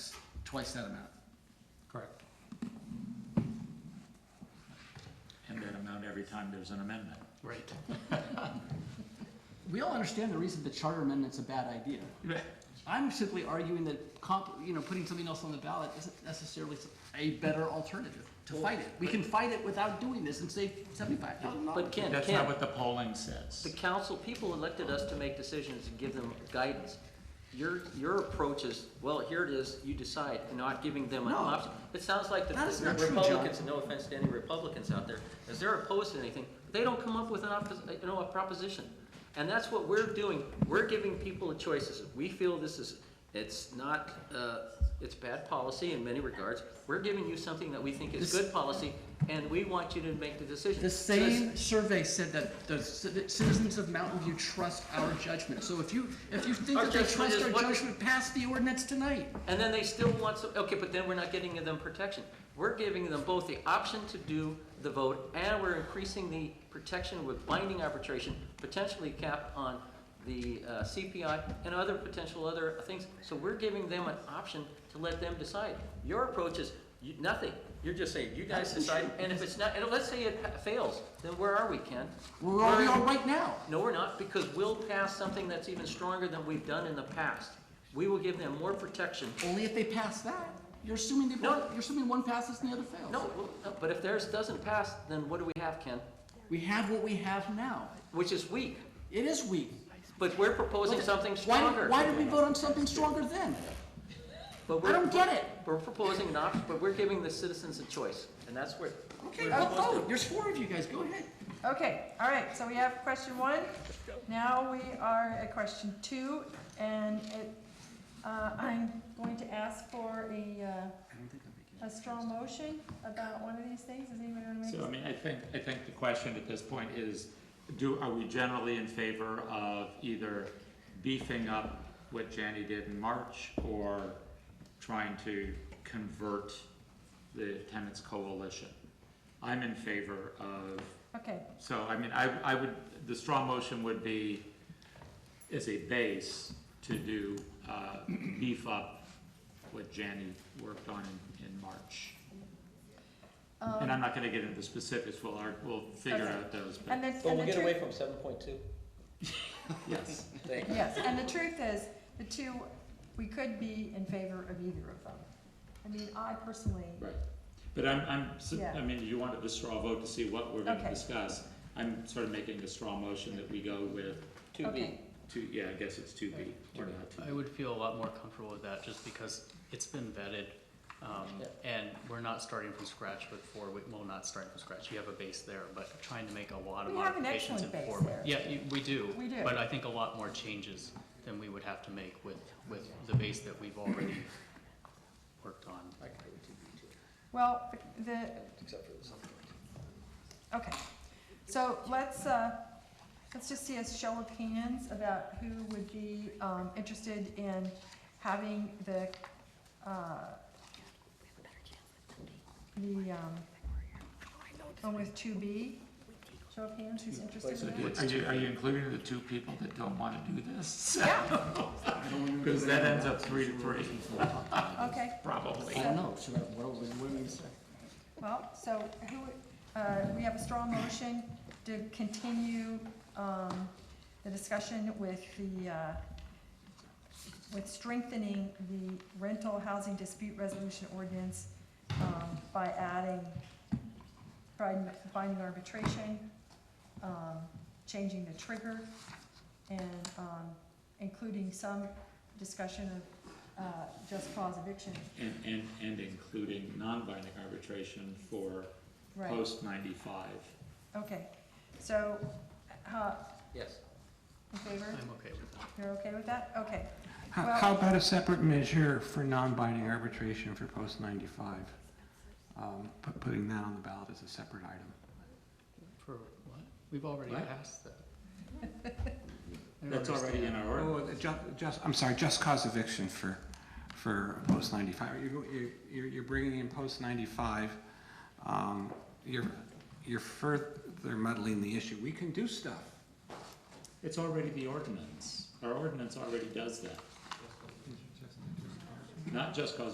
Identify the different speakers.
Speaker 1: twice that amount,
Speaker 2: Correct.
Speaker 3: And that amount every time there's an amendment.
Speaker 2: Right.
Speaker 1: we all understand the reason the charter amendment's a bad idea. I'm simply arguing that comp, you know, putting something else on the ballot isn't necessarily a better alternative to fight it. We can fight it without doing this and save seventy-five thousand dollars.
Speaker 4: But Ken,
Speaker 3: That's not
Speaker 4: Ken,
Speaker 3: what the polling
Speaker 4: the
Speaker 3: says.
Speaker 4: council, people elected us to make decisions and give them guidance. Your, your approach is, well, here it is, you decide, and not giving them an
Speaker 1: No.
Speaker 4: option. It sounds like the
Speaker 1: That is not true, John.
Speaker 4: Republicans, and no offense to any Republicans out there, as they're opposed to anything, they don't come up with an oppos, you know, a proposition. And that's what we're doing, we're giving people choices. We feel this is, it's not, uh, it's bad policy in many regards. We're giving you something that we think is
Speaker 1: This-
Speaker 4: good policy, and we want you to make the decision.
Speaker 1: The
Speaker 4: So this-
Speaker 1: same survey said that the ci- citizens of Mountain View trust our judgment. So if you, if you think
Speaker 4: Our
Speaker 1: that they
Speaker 4: judgment
Speaker 1: trust
Speaker 4: is
Speaker 1: our
Speaker 4: what-
Speaker 1: judgment, pass the ordinance tonight.
Speaker 4: And then they still want some, okay, but then we're not getting them protection. We're giving them both the option to do the vote, and we're increasing the protection with binding arbitration, potentially cap on the uh, CPI and other potential other things. So we're giving them an option to let them decide. Your approach is you- nothing. You're just saying, you guys decide, and if it's not, and let's say it pa- fails, then where are we, Ken?
Speaker 1: We're where we
Speaker 4: We're-
Speaker 1: are right now.
Speaker 4: no, we're not, because we'll pass something that's even stronger than we've done in the past. We will give them more protection
Speaker 1: Only if they pass that. You're assuming they,
Speaker 4: No.
Speaker 1: both- you're assuming one passes and the other fails.
Speaker 4: No, well, no, but if theirs doesn't pass, then what do we have, Ken?
Speaker 1: We have what we have now.
Speaker 4: Which is weak,
Speaker 1: It is weak.
Speaker 4: but we're proposing something
Speaker 1: Why,
Speaker 4: stronger.
Speaker 1: why did we vote on something stronger then?
Speaker 4: But
Speaker 1: I
Speaker 4: we're,
Speaker 1: don't get it.
Speaker 4: we're proposing an option, but we're giving the citizens a choice, and that's where.
Speaker 1: Okay, I'll vote. There's four of you guys. Go ahead.
Speaker 5: Okay, all right, so we have question one. Now we are at question two, and it, uh, I'm going to ask for a, uh,
Speaker 1: I don't think I'm making
Speaker 5: a strong motion about one of these things. Does anybody want to
Speaker 3: So, I
Speaker 5: make?
Speaker 3: mean, I think, I think the question at this point is, do, are we generally in favor of either beefing up what Janny did in March or trying to convert the tenants coalition? I'm in favor of
Speaker 5: Okay,
Speaker 3: So, I mean, I, I would, the straw motion would be, as a base, to do, uh, beef up what Janny worked on in, in March.
Speaker 5: um,
Speaker 3: And I'm not gonna get into specifics, we'll, ar- we'll figure
Speaker 5: Okay.
Speaker 3: out those, but,
Speaker 5: and then, and the truth,
Speaker 4: from seven point two.
Speaker 3: yes.
Speaker 4: Thank
Speaker 5: yes, and the truth is, the two, we could be in favor of either of them. I mean, I personally,
Speaker 3: Right. But I'm, I'm, s-
Speaker 5: Yeah.
Speaker 3: I mean, you wanted the straw vote to see what we're gonna
Speaker 5: Okay.
Speaker 3: discuss. I'm sort of making a straw motion that we go with
Speaker 4: Two B.
Speaker 5: okay,
Speaker 3: two, yeah, I guess it's two B, or not two.
Speaker 6: I would feel a lot more comfortable with that, just because it's been vetted, um, and we're not starting from scratch with four, we, well, not starting from scratch, you have a base there, but trying to make a lot of
Speaker 5: We have an
Speaker 6: modifications in
Speaker 5: excellent
Speaker 6: four.
Speaker 5: base there.
Speaker 6: Yeah, you, we do.
Speaker 5: We do.
Speaker 6: But I think a lot more changes than we would have to make with, with the base that we've already worked on.
Speaker 5: well, the. Except for the. Okay, so let's, uh, let's just see a show of hands about who would be, um, interested in having the, uh, the, um, one with two B, show of hands, who's interested in that?
Speaker 3: Are you, are you including the two people that don't wanna do this?
Speaker 5: Yeah,
Speaker 3: Because that ends up three to three,
Speaker 5: okay,
Speaker 3: probably.
Speaker 1: I don't know. Should I, what, what do you mean to say?
Speaker 5: well, so who, uh, we have a strong motion to continue, um, the discussion with the, uh, with strengthening the rental housing dispute resolution ordinance, um, by adding bind- binding arbitration, um, changing the trigger, and, um, including some discussion of, uh, just cause eviction,
Speaker 3: And, and, and including non-binding arbitration for
Speaker 5: right?
Speaker 3: post ninety-five.
Speaker 5: Okay, so, uh,
Speaker 4: Yes.
Speaker 5: in favor?
Speaker 6: I'm okay with that.
Speaker 5: You're okay with that? Okay,
Speaker 2: How,
Speaker 5: Well-
Speaker 2: how about a separate measure for non-binding arbitration for post ninety-five? Um, pu- putting that on the ballot as a separate item.
Speaker 6: For what? We've already
Speaker 3: What?
Speaker 6: passed that. I don't
Speaker 3: That's already in
Speaker 6: understand.
Speaker 3: our
Speaker 2: Oh,
Speaker 3: order.
Speaker 2: just, just, I'm sorry, just cause eviction for, for post ninety-five. You're, go- you're- you're, you're bringing in post ninety-five. Um, you're, you're further muddling the issue. We can do stuff.
Speaker 3: It's already the ordinance. Our ordinance already does that. Not just cause